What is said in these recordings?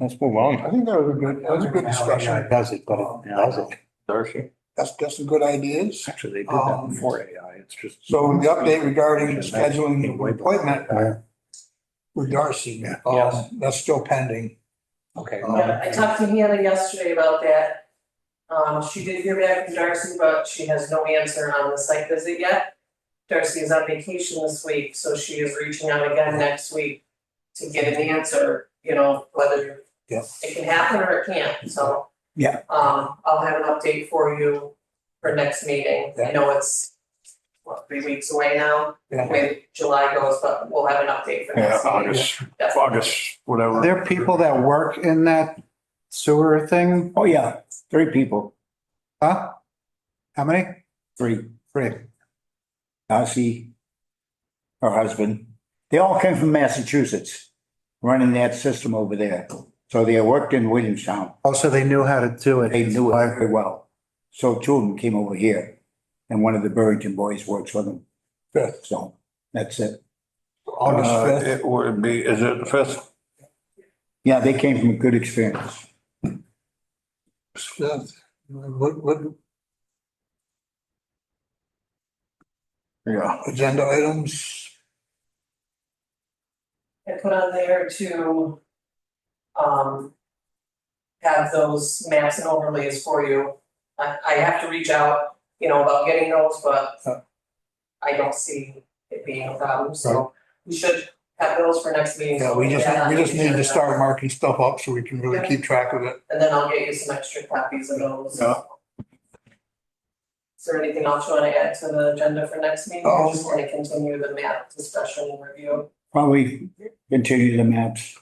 Let's move on. I think that was a good, that was a good discussion. Um, Does it, but it doesn't. Darcy. That's, that's some good ideas. Actually, they did that before AI. It's just. um, So the update regarding scheduling the appointment with Darcy, um, that's still pending. Okay. Um, Yeah, I talked to Hannah yesterday about that. Um, she did hear back from Darcy, but she has no answer on the site visit yet. Darcy is on vacation this week, so she is reaching out again next week to get an answer, you know, whether Yeah. it can happen or it can't, so. Yeah. Um, I'll have an update for you for next meeting. I know it's, what, three weeks away now, the Yeah. way July goes, but we'll have an update for Yeah, next meeting. August, definitely. August, whatever. Uh, There are people that work in that sewer thing, Oh, yeah, three people, huh? How many? three, Three. Darcy, her husband, they all came from Massachusetts, running that system over there. So they worked in Williamstown. Also, they knew how to do it. They knew it very well. So two of them came over here, and one of the Burrington boys works for them. Good. So that's it. Uh, August fifth, It would be, is it the fifth? Yeah, they came from a good experience. fifth, what, what Yeah. agenda items? I put on there to um have those maps and overlays for you. I I have to reach out, you know, about getting those, Yeah. but I don't see it being a problem, so we should have those for next meeting. Yeah, we just, we just need to start marking, marking stuff up so we can really keep track of it. And then I'll get you some extra copies of those. Yeah. Is there anything else you wanna add to the agenda for next meeting? or Oh. Just wanna continue the map discussion and review. Probably continue the maps.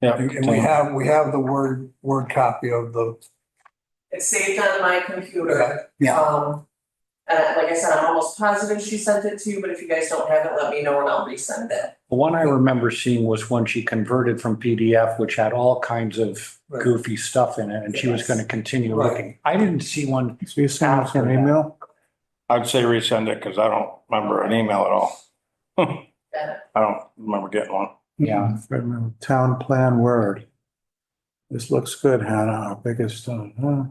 And and we have, we have the word, word copy of the, It's saved on my computer. Yeah. Yeah. Um, and I- like I said, I'm almost positive she sent it to you, but if you guys don't have it, let me know and I'll resend it. The one I remember seeing was when she converted from PDF, which had all kinds of Right. goofy stuff in it, and she was gonna continue Right. looking. I didn't see one. So you sent us an email? I'd say resend it because I don't remember an email at all. Yeah. I don't remember getting one. Yeah. I remember. Town plan word. This looks good, Hannah, our biggest, uh, huh?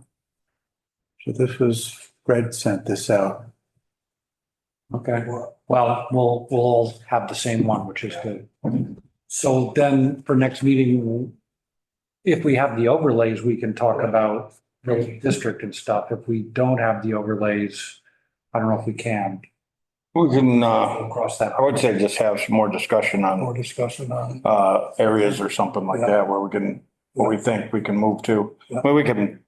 So this was, Fred sent this out. Okay, well, we'll, we'll all have the same one, which is good. So then for next meeting, if we have the overlays, we can talk about the district and stuff. If we don't have the overlays, I don't know if we can. We can, We'll uh, Cross that. I would say just have some more discussion on, more discussion on. uh, areas or something like Yeah. that where we can, where we think we can move to. Yeah. Where we can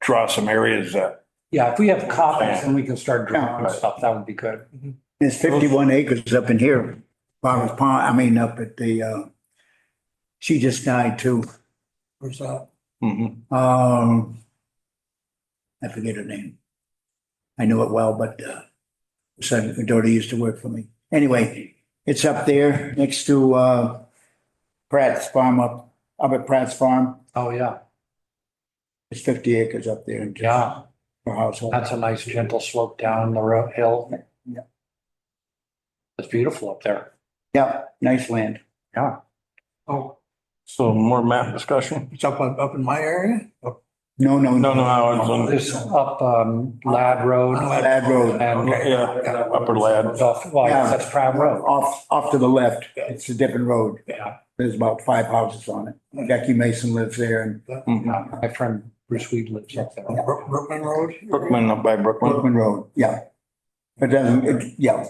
draw some areas that, Yeah, if we have copies, then we can start drawing Yeah. stuff. That would be good. There's fifty-one acres up in here, Farmers Pond, I mean, up at the, uh, she just died too, Where's that? Mhm. um, I forget her name. I knew it well, but, uh, son, her daughter used to work for me. Anyway, it's up there next to, uh, Pratt's Farm up, up at Pratt's Farm. Oh, yeah. It's fifty acres up there in just Yeah. for household. That's a nice gentle slope down the road hill. Yeah. It's beautiful up there. Yeah, nice land. Oh, so more map discussion? it's up, on- up in my area? Up No, no, No, no, no, it's on- This up um Lad Road Oh, on and. Lad Road. Okay. yeah, upper lad. Off, well, Yeah. that's Pratt Road. Off, off to the left, it's a different road. Yeah. There's about five houses on it. Becky Mason lives there and Mhm. Yeah, My friend Bruce Weed lives up there. Brook- Brookman Road? Brookman, up by Brookman. Brookman Road, yeah. It doesn't, it- yeah,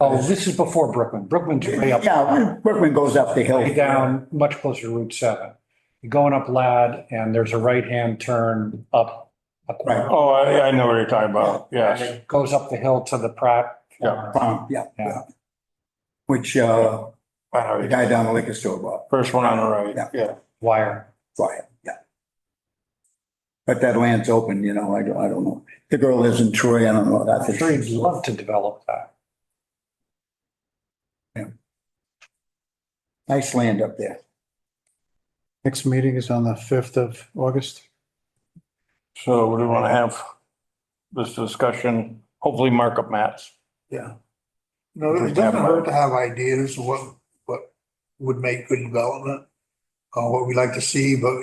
Oh, this is before Brookman. Brookman's way up. yeah, Brookman goes up the hill. Way down, much closer to Route seven. You're Going up Lad and there's a right-hand turn up. a corner. Oh, I, I know what you're talking about. And Yes. it Goes up the hill to the Pratt. Yeah. Farm, yeah, Yeah. yeah. Which, uh, I know the you- guy down the liquor store bought, First one on the right, Yeah. yeah. Wire. for him, yeah. But that land's open, you know, I don't, I don't know. The girl lives in Troy, I don't know, that's. I'm sure he'd love to develop that. Nice land up there. Next meeting is on the fifth of August. So we want to have this discussion, hopefully markup maps. Yeah. No, it doesn't hurt to have ideas of what, what would make good development. uh, what we'd like to see, but